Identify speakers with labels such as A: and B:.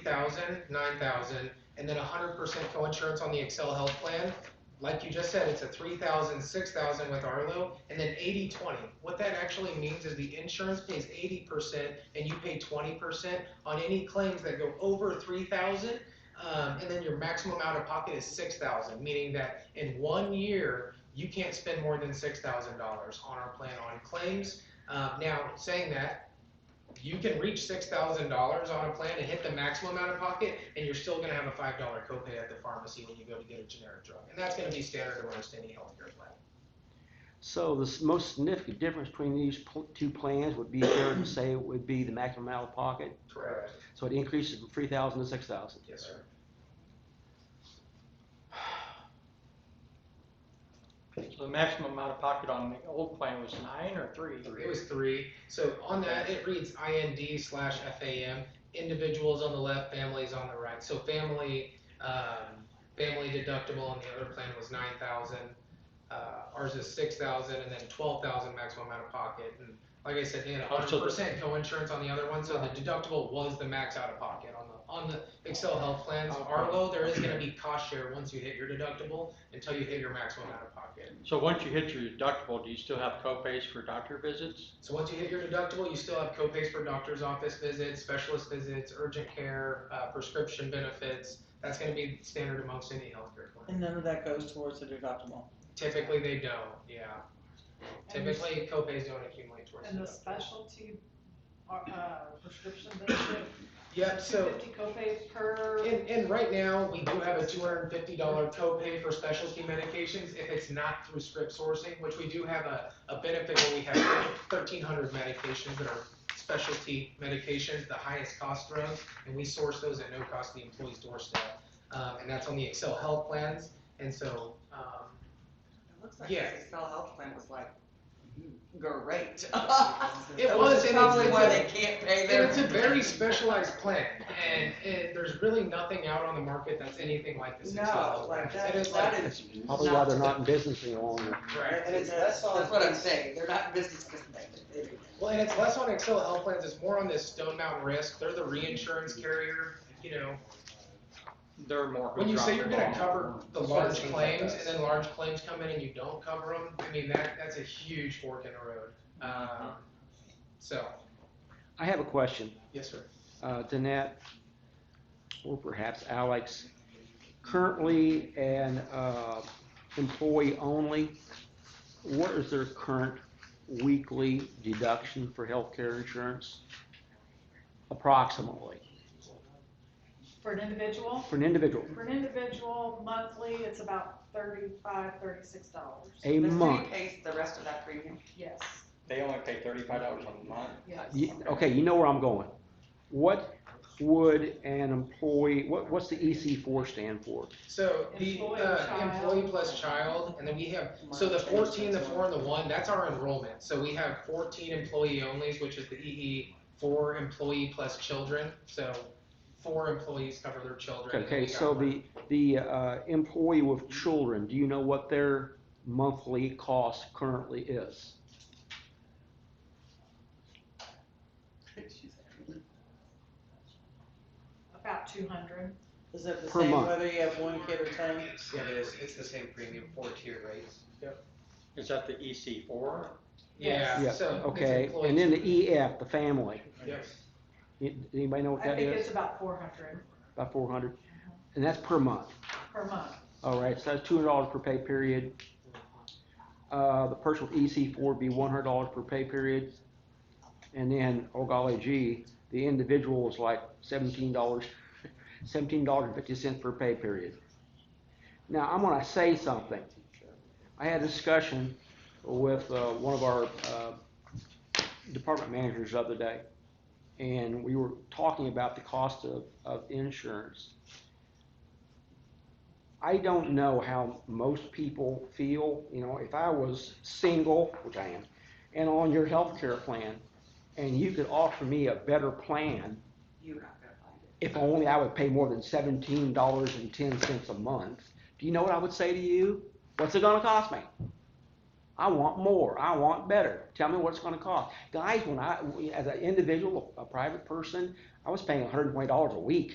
A: thousand, nine thousand, and then hundred percent co-insurance on the Excel Health Plan. Like you just said, it's a three thousand, six thousand with Arlo, and then eighty, twenty. What that actually means is the insurance pays eighty percent and you pay twenty percent on any claims that go over three thousand. Um, and then your maximum out of pocket is six thousand, meaning that in one year, you can't spend more than six thousand dollars on our plan on claims. Uh, now, saying that, you can reach six thousand dollars on a plan and hit the maximum out of pocket, and you're still gonna have a five dollar copay at the pharmacy when you go to get a generic drug, and that's gonna be standard amongst any healthcare plan.
B: So the s- most significant difference between these pl- two plans would be fair to say would be the maximum out of pocket.
A: Correct.
B: So it increases from three thousand to six thousand.
A: Yes, sir.
C: So the maximum amount of pocket on the old plan was nine or three?
A: It was three. So on that, it reads IND slash FAM. Individuals on the left, families on the right. So family, um, family deductible on the other plan was nine thousand. Uh, ours is six thousand, and then twelve thousand maximum out of pocket. And like I said, they had a
C: Oh, so
A: hundred
C: the-
A: percent co-insurance on the other one, so the deductible was the max out of pocket on the on the Excel health plans.
C: Okay.
A: Arlo, there is going to be cost share once you hit your deductible until you hit your maximum out of pocket.
C: So once you hit your deductible, do you still have co-pays for doctor visits?
A: So once you hit your deductible, you still have copays for doctor's office visits, specialist visits, urgent care, uh, prescription benefits. That's going to be standard amongst any healthcare plan.
D: And none of that goes towards the deductible.
A: Typically, they don't. Yeah.
E: And the-
A: Typically, copays don't accumulate towards.
E: And the
A: deductibles.
E: specialty, uh, uh, prescription benefit,
A: Yep.
E: two
A: So.
E: fifty copay per,
A: And, and right now, we do have a two hundred and fifty dollar copay for specialty medications if it's not through script sourcing, which we do have a, a benefit where we have thirteen hundred medications that are specialty medications, the highest cost drugs, and we source those at no cost to the employee's doorstep. Um, and that's on the Excel health plans, and so, um,
D: It looks like
A: Yeah. Mm-hmm.
D: this Excel health plan was like great.
A: it
D: That
A: was, and it's,
D: Probably
A: it's
D: why
A: a-
D: they can't pay
A: And
D: their.
A: it's a very specialized plan, and, and there's really nothing out on the market that's anything like this. Excel
D: No,
A: health
D: like
A: plan.
D: that,
A: And it's
D: that
A: like-
D: is.
B: Probably why they're not in business any longer.
A: Right.
F: And it's, that's all.
D: That's what I'm saying, they're not in business because they, they-
A: Well, and it's less on Excel health plans, it's more on this Stone Mountain Risk, they're the reinsurance carrier, you know.
C: There are more. who
A: When you
C: drop
A: say you're
C: the
A: gonna
C: ball.
A: cover the
F: That's what it
A: large
F: seems like
A: claims, and
F: us.
A: then large claims come in and you don't cover them, I mean, that, that's a huge fork in the road. Um, so,
B: I have a question,
A: yes, sir.
B: uh, Danette, or perhaps Alex. Currently an, uh, employee only, what is their current weekly deduction for healthcare insurance? Approximately,
E: for an individual.
B: for an individual,
E: For an individual monthly, it's about thirty-five, thirty-six dollars.
B: a
D: the
B: month.
D: city pays the rest of that premium.
E: Yes,
C: They only pay thirty-five dollars a month.
E: yes.
B: Ye- Okay, you know where I'm going. What would an employee, what, what's the EC four stand for?
A: So, the,
E: Employee,
A: uh,
E: child.
A: employee plus child, and then we have So the fourteen, the four, and the one, that's our enrollment. So we have fourteen employee onlys, which is the EE, four employee plus children. So four employees cover their children. and
B: Okay,
A: we got
B: so
A: one.
B: the, the, uh, employee with children, do you know what their monthly cost currently is?
E: About two hundred.
D: Is it the
B: Per
D: same
B: month.
D: whether you have one kid or ten?
F: Yeah, it is, it's the same premium, four tier rates.
C: Is that the EC four?
A: Yeah,
B: Yeah,
A: so. it's
B: Okay,
A: employees.
B: and then the E EF, the family,
A: Yep.
B: Y- anybody know what
E: I
B: that
E: think
B: is?
E: it's about four hundred
B: About four hundred, and that's per month,
E: per month.
B: all right, so that's two hundred dollars per pay period. Uh, the person with EC four would be one hundred dollars per pay period, and then, oh golly gee, the individual is like seventeen dollars, seventeen dollars and fifty cents per pay period. Now, I'm gonna say something. I had a discussion with uh, one of our uh, department managers the other day, and we were talking about the cost of, of insurance. I don't know how most people feel, you know, if I was single, which I am, and on your health care plan, and you could offer me a better plan,
D: You're not gonna find it.
B: if only I would pay more than seventeen dollars and ten cents a month, do you know what I would say to you? What's it gonna cost me? I want more, I want better, tell me what it's gonna cost. Guys, when I, as an individual, a private person, I was paying hundred and twenty dollars a week